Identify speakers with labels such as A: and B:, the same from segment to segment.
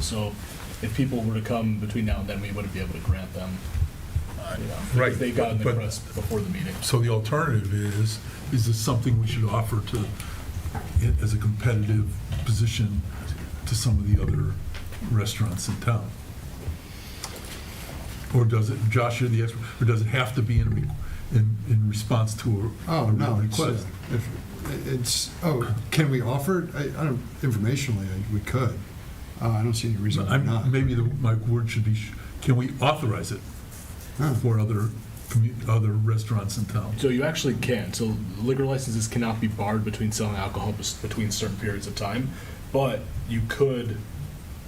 A: So if people were to come between now and then, we wouldn't be able to grant them, uh, you know,
B: Right,
A: if they got in the
B: but-
A: press before the meeting.
B: So the alternative is, is this something we should offer to, i- as a competitive position to some of the other restaurants in town? Or does it, Josh, you're the expert, or does it have to be in, re- in, in response to a
C: Oh,
B: a
C: no, it's, uh,
B: request?
C: if, it's, oh, can we offer it? I, I don't, informationally, I- we could. Uh, I don't see any reason why
B: I'm-
C: not.
B: Maybe the, my word should be, sh- can we authorize it
C: Huh.
B: for other, commu- other restaurants in town?
A: So you actually can. So liquor licenses cannot be barred between selling alcohol bes- between certain periods of time, but you could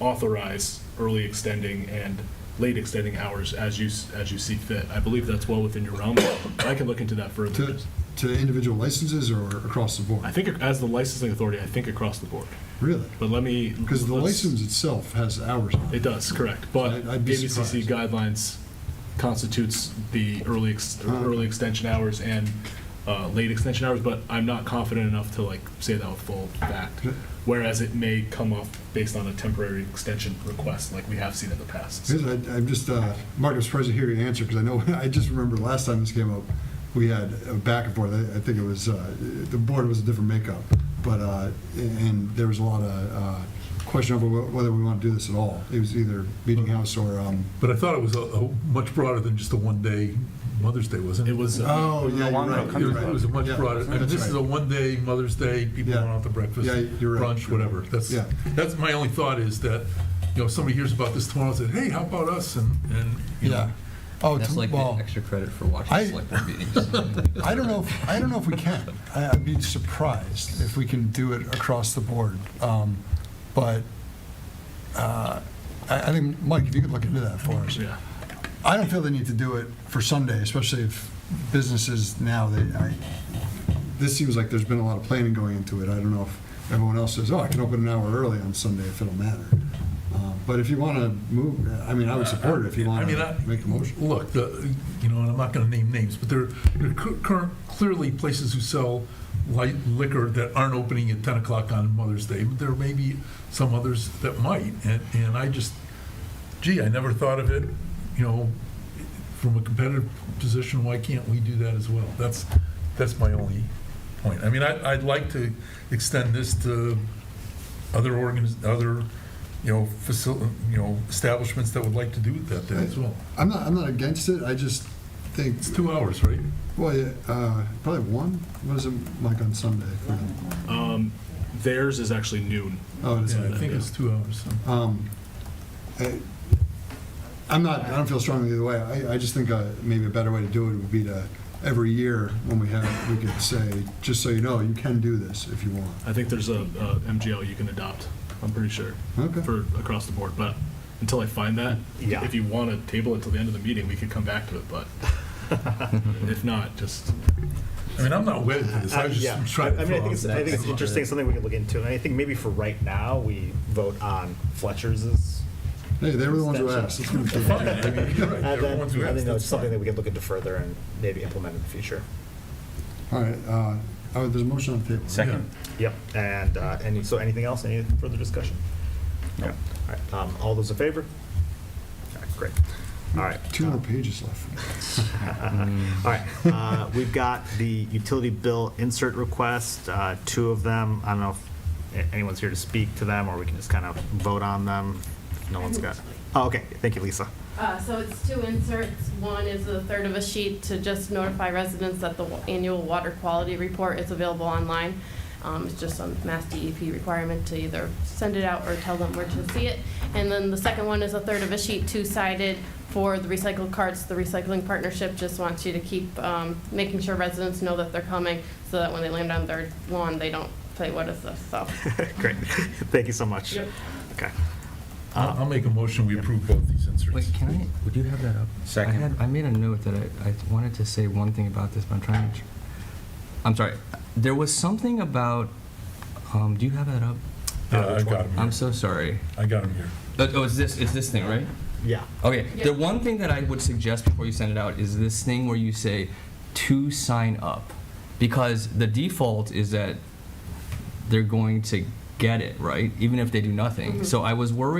A: authorize early extending and late extending hours as you s- as you see fit. I believe that's well within your realm. I can look into that further.
C: To, to individual licenses or across the
A: I
C: board?
A: think as the licensing authority, I think across the board.
C: Really?
A: But let me
C: Because the
A: let's-
C: license itself has hours on
A: It
C: it.
A: does, correct. But
C: I'd- I'd be
A: ABCC
C: surprised.
A: guidelines constitutes the early, ex-
C: Ah.
A: early extension hours and uh, late extension hours, but I'm not confident enough to like say that with full fact.
C: Okay.
A: Whereas it may come off based on a temporary extension request, like we have seen in the past.
C: Because I, I'm just, uh, Mark, I'm surprised to hear your answer, because I know, I just remember last time this came up, we had a back and forth, I I think it was, uh, the board was a different makeup, but, uh, and there was a lot of uh, question over wh- whether we want to do this at all. It was either Meeting House or, um,
B: But I thought it was a, a much broader than just a one-day Mother's Day, wasn't it?
A: It was, uh,
C: oh, yeah, you're
D: Long Meadow
C: right.
B: It
D: Country
C: you're
B: was-
D: Club.
B: it was a much
C: Yeah,
B: broader, I mean,
C: that's
B: this is
C: right.
B: a one-day, Mother's Day, people
C: Yeah.
B: going out to breakfast,
C: Yeah, you're right.
B: brunch, whatever. That's,
C: Yeah.
B: that's my only thought is that, you know, if somebody hears about this tomorrow and says, hey, how about us? And, and, you know,
C: Yeah. Oh,
E: That's
C: to-
E: like the
C: well,
E: extra credit for watching
C: I-
E: select board meetings.
C: I don't know, if- I don't know if we can. I- I'd be surprised if we can do it across the board. Um, But uh, I I think, Mike, if you could look into that for us.
A: yeah.
C: I don't feel they need to do it for Sunday, especially if businesses now, they, I, this seems like there's been a lot of planning going into it. I don't know if everyone else says, oh, I can open an hour early on Sunday if it'll matter. Uh, But if you want to move, I mean, I would support it if you
B: I
C: want
B: mean,
C: to
B: I,
C: make a motion.
B: look, the, you know, and I'm not going to name names, but there there are cur- current, clearly places who sell light liquor that aren't opening at 10 o'clock on Mother's Day, but there may be some others that might. And, and I just, gee, I never thought of it, you know, from a competitive position, why can't we do that as well? That's, that's my only point. I mean, I, I'd like to extend this to other organiz, other, you know, facil, you know, establishments that would like to do that day as well.
C: I'm not, I'm not against it, I just think,
B: It's two hours, right?
C: well, yeah, uh, probably one, what is it, like on Sunday? for them?
A: Um, Theirs is actually noon.
C: Oh, it is.
B: Yeah, I think it's two hours. so.
C: Um, I- I'm not, I don't feel strongly either way. I, I just think uh, maybe a better way to do it would be to, every year when we have, we could say, just so you know, you can do this if you want.
A: I think there's a a MGL you can adopt, I'm pretty sure,
C: Okay.
A: for across the board. But until I find that,
D: Yeah.
A: if you want to table it till the end of the meeting, we could come back to it, but if not, just
B: I mean, I'm not wedded to this, I was
D: Um, Yeah.
B: just trying to.
D: I mean, I think it's,
B: throw
D: I
B: out-
D: think it's interesting, something we could look into, and I think maybe for right now, we vote on Fletcher's.
C: Hey, they were the ones who asked. It's gonna be-
B: Fine, I mean, you're right,
D: And then,
B: everyone's who
D: I
B: has,
D: think that's
B: that's
D: something that
B: fine.
D: we could look into further and maybe implement in the future.
C: All right, uh, oh, there's a motion on the table. right?
B: Second.
D: Yep, and, uh, any, so anything else, any further discussion? No. All right, um, all those in favor? All right, great. All right.
C: Two more pages left.
D: All right, uh, we've got the utility bill insert request, uh, two of them. I don't know if anyone's here to speak to them, or we can just kind of vote on them. No one's got, oh, okay, thank you, Lisa.
F: Uh, So it's two inserts. One is a third of a sheet to just notify residents that the wa- annual water quality report is available online. Um, It's just a Mass DEP requirement to either send it out or tell them where to see it. And then the second one is a third of a sheet, two-sided, for the recycled carts. The recycling partnership just wants you to keep um, making sure residents know that they're coming so that when they land on their lawn, they don't say, what is this? So
D: Great, thank you so much.
F: Yep.
D: Okay.
B: I'll I'll make a motion, we approve both these inserts.
E: Wait, can I, would you have that up? Second. I had, I made a note that I, I wanted to say one thing about this, but I'm trying to, tr- I'm sorry. There was something about, um, do you have that up?
B: Yeah, I got them,
E: I'm so sorry.
B: I got them here.
E: But- Oh, it's this, it's this thing, right?
D: Yeah,
E: Okay,
F: Yeah.
E: the one thing that I would suggest before you send it out is this thing where you say to sign up. Because the default is that they're going to get it, right? Even if they do nothing. So I was worried